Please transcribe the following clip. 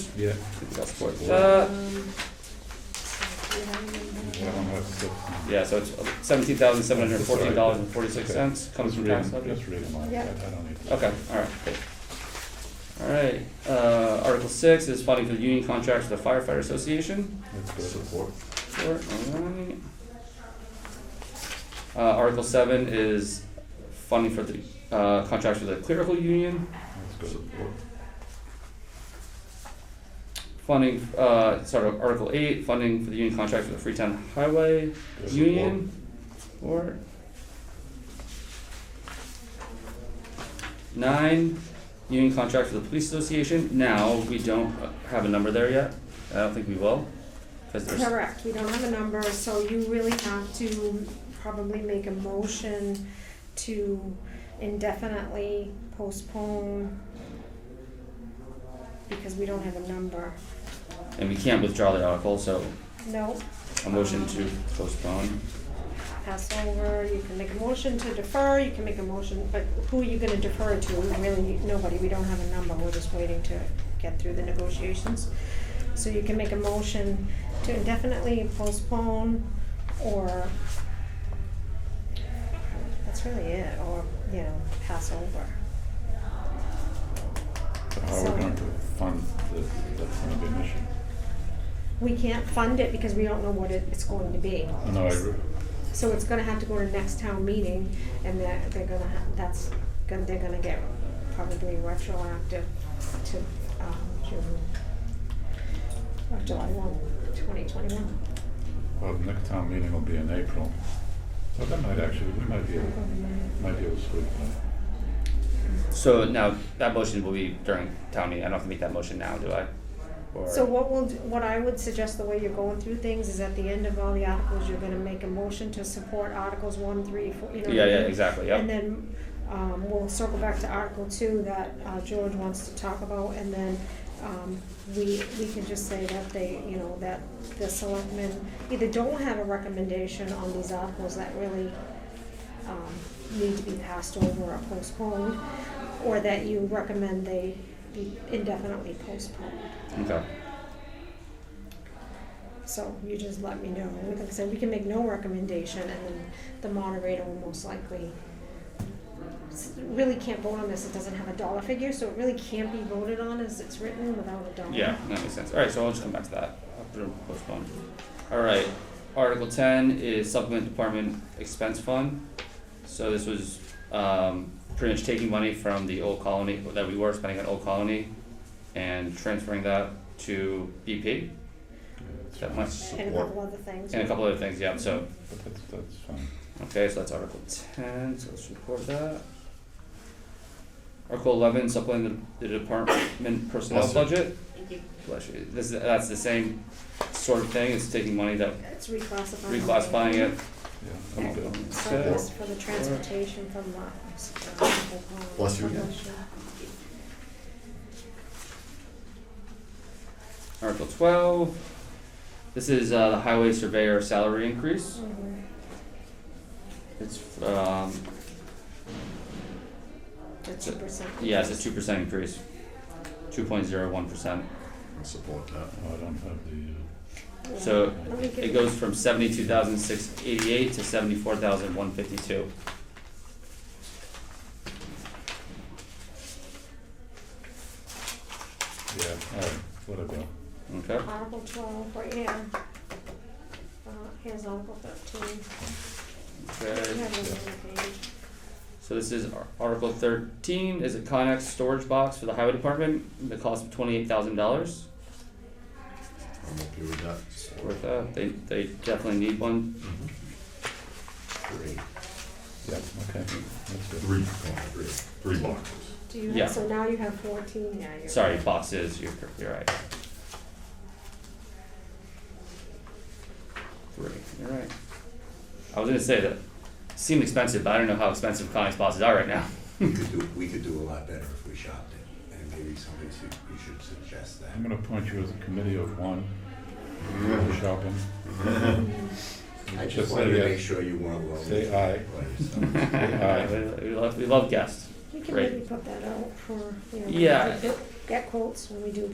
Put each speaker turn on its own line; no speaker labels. Yeah.
That's what.
Uh,
Yeah, so it's seventeen thousand seven hundred fourteen dollars and forty-six cents comes
Just
from
read 'em-
tax levy.
Just read them off, I
Yeah.
I don't need to.
Okay, all right, good. All right, uh, Article six is funding for the union contracts with the firefighter association.
That's good. Support.
Sure, all right. Uh, Article seven is funding for the, uh, contracts with the clerical union.
That's good. Support.
Funding, uh, sort of Article eight, funding for the union contracts with the Freetown Highway
Good.
Union or nine union contract for the police association. Now we don't have a number there yet. I don't think we will, because there's
Correct, we don't have a number, so you really have to probably make a motion to indefinitely postpone because we don't have a number.
and we can't withdraw the article. So
No,
a motion to postpone.
pass over, you can make a motion to defer, you can make a motion, but who are you gonna defer to? Really, nobody, we don't have a number, we're just waiting to get through the negotiations. So you can make a motion to indefinitely postpone or that's really it, or, you know, pass over.
So How are we
So-
going to fund this? That's going to be an issue.
We can't fund it because we don't know what it, it's going to be.
No, I agree.
So it's gonna have to go to next town meeting, and they're, they're gonna, ha- that's, gonna- they're gonna get probably retroactive to, um, June, or July one, twenty twenty-one.
Well, the next town meeting will be in April. So that might actually, we might be, able- might be able to sweep that.
So now that motion will be during town meeting. I don't have to make that motion now, do I? Or
So what will, what I would suggest, the way you're going through things, is at the end of all the articles, you're gonna make a motion to support articles one, three, four, you know. what I
yeah, yeah,
mean?
exactly. Yep.
And then, um, we'll circle back to Article two that, uh, George wants to talk about, and then, um, we, we can just say that they, you know, that the selectmen either don't have a recommendation on these articles that really, um, need to be passed over or postponed, or that you recommend they be indefinitely postponed.
okay.
So you just let me know. Like I said, we can make no recommendation and then the moderator will most likely s- really can't vote on this. It doesn't have a dollar figure, so it really can't be voted on as it's written without a dollar.
Yeah, that makes sense. All right, so I'll just come back to that. I'll put it on postpone. All right, Article ten is supplement department expense fund. So this was um pretty much taking money from the old colony that we were spending on old colony and transferring that to BP that much
And a couple other things.
and a couple other things. Yeah, so
But that's, that's fine.
okay, so that's Article ten. So let's record that. Article eleven supplement the, the department personnel
Awesome.
budget.
Thank you.
Bless you. This, that's the same sort of thing, it's taking money that,
It's reclassifying.
reclassifying it.
Yeah.
Come
I'm
on.
good.
Okay.
Surplus for the transportation from the.
Bless you.
Article twelve, this is, uh, the highway surveyor salary increase,
Mhm.
it's, um,
The two percent.
yeah, it's a two percent increase, two point zero one percent.
I'll support that.
No, Oh, I don't have the, uh,
So
Let me give
it
you-
goes from seventy-two thousand six eighty-eight to seventy-four thousand one fifty-two.
uh, yeah, all right, whatever.
Okay,
Article twelve, right here. Uh, here's Article thirteen. You
okay,
have those on the page.
so this is Ar- Article thirteen, is a Connex storage box for the highway department, the cost of twenty-eight thousand dollars.
I'm okay with that. Support.
Worth that, they, they definitely need one,
Mm-hmm. Three.
Yeah, okay, that's good.
Three, oh, three. Three boxes.
Do you
Yeah.
have, so now you have fourteen, yeah, you're.
Sorry, boxes, you're, cor- you're right. Three, you're right. I was gonna say that, seemed expensive, but I don't know how expensive Connex boxes are right now.
We could do, we could do a lot better if we shopped it, and maybe somebody should, we should suggest that.
I'm gonna appoint you as a committee of one, for shopping.
I
Just
just
say
wanted to
yes.
make sure you weren't lonely.
Say aye.
by yourself.
Aye.
We we love, we love guests.
We can
Right.
maybe put that out for, you know.
Yeah.
Get quotes when we do